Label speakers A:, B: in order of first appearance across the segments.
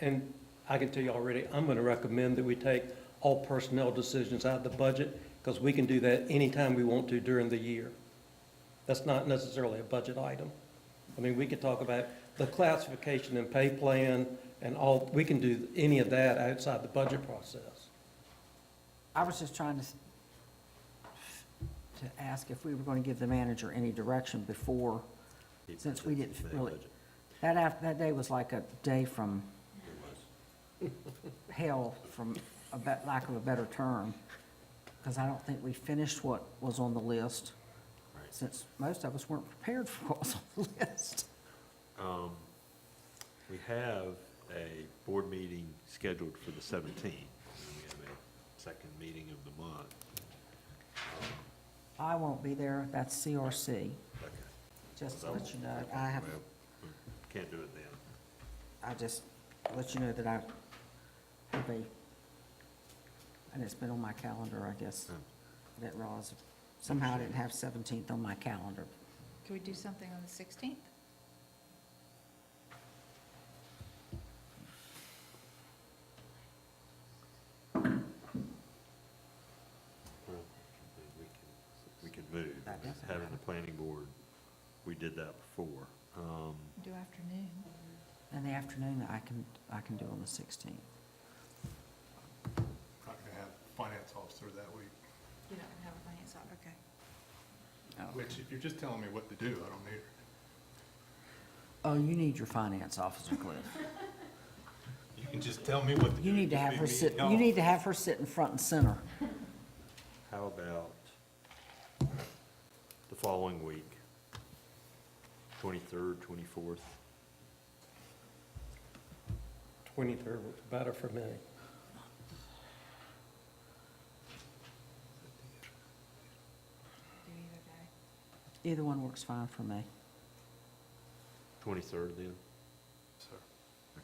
A: and I can tell you already, I'm gonna recommend that we take all personnel decisions out of the budget, because we can do that anytime we want to during the year. That's not necessarily a budget item. I mean, we could talk about the classification and pay plan and all, we can do any of that outside the budget process.
B: I was just trying to, s- to ask if we were going to give the manager any direction before, since we didn't really, that af, that day was like a day from hell, from a bet, lack of a better term, because I don't think we finished what was on the list, since most of us weren't prepared for what was on the list.
C: We have a board meeting scheduled for the 17th. and We have a second meeting of the month.
B: I won't be there, that's CRC,
C: Okay.
B: just to let you know, I have,
C: Well, we Can't do it then.
B: I just let you know that I have a, and it's been on my calendar, I guess, I didn't realize, somehow I didn't have seventeenth on my calendar.
D: Could we do something on the 16th?
C: Well, We can we can move.
B: That doesn't
C: Having the
B: matter.
C: planning board, we did that before. Um,
D: Do afternoon?
B: In the afternoon, I can, I can do on the sixteenth.
E: Not gonna have finance officer that week,
D: You're not gonna have a finance op, okay.
E: which if you're just telling me what to do, I don't need her.
B: Oh, you need your finance officer, Cliff.
E: You can just tell me what to do.
B: You need to
E: Just
B: have
E: leave
B: her
E: me
B: sit, you
E: alone.
B: need to have her sitting front and center.
C: How about the following week? 23rd, 24th?
A: Twenty-third was better for me.
D: Do either day.
B: Either one works fine for me.
C: 23rd then?
E: Sir,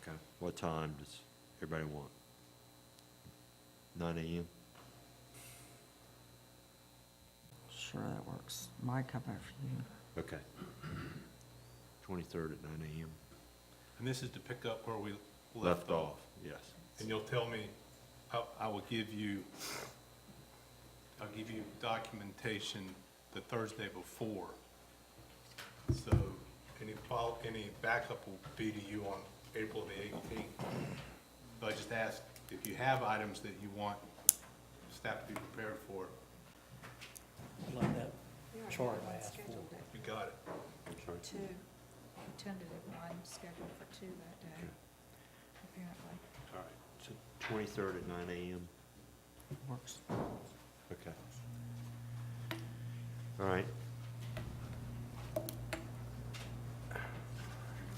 C: Okay. What time does everybody want? 9 AM?
B: Sure, that works. Mike, how about for you?
C: Okay. Twenty-third at nine AM.
F: And this is to pick up where we
C: Left off, yes.
F: And you'll tell me, I, I will give you, I'll give you documentation the Thursday before. So any follow, any backup will be to you on April the eighteenth. But I just ask, if you have items that you want staff to be prepared for,
A: I Like that chart I asked for.
F: you got it.
C: Sorry.
D: Two, We tentative one scheduled for two that day,
C: Okay.
D: apparently.
C: All right, so twenty-third at nine AM,
B: Works.
C: okay. All right.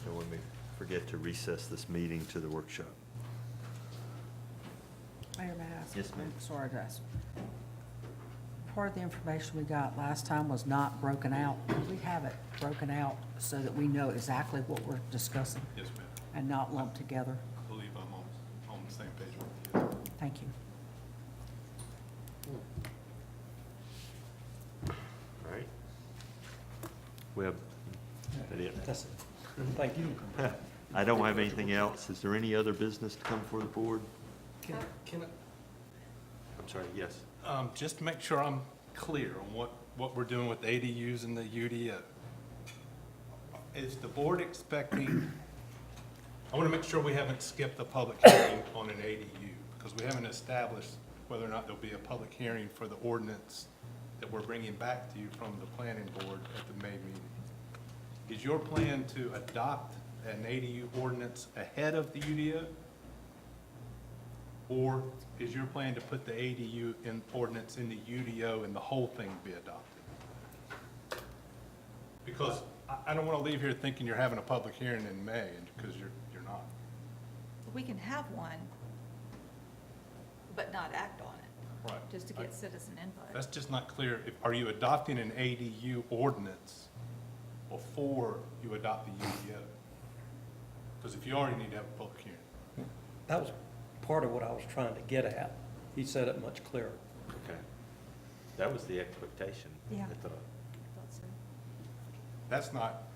C: Don't let me forget to recess this meeting to the workshop.
B: Mayor, may I ask?
C: Yes, ma'am.
B: I'm Sorry, guys. Part of the information we got last time was not broken out. We have it broken out so that we know exactly what we're discussing
F: Yes, ma'am.
B: and not lumped together.
F: I believe I'm on, on the same page with you.
B: Thank you.
C: All right. We have, that it?
A: That's it. Thank you.
C: I don't have anything else. Is there any other business to come before the board?
F: Can, can,
C: I'm sorry, yes.
F: Um, just to make sure I'm clear on what, what we're doing with ADUs and the UDO. Is the board expecting, I want to make sure we haven't skipped the public hearing on an ADU, because we haven't established whether or not there'll be a public hearing for the ordinance that we're bringing back to you from the planning board at the May meeting. Is your plan to adopt an ADU ordinance ahead of the UDO? Or is your plan to put the ADU in ordinance in the UDO and the whole thing be adopted? Because I, I don't want to leave here thinking you're having a public hearing in May, and, because you're, you're not.
D: But We can have one, but not act on it,
F: Right.
D: just to get citizen input.
F: That's just not clear. If- Are you adopting an ADU ordinance before you adopt the UDO? Because if you already need to have a public hearing.
A: That was part of what I was trying to get at. He said it much clearer.
C: Okay. That was the expectation,
D: Yeah.
C: I thought.
D: I thought so.
F: That's not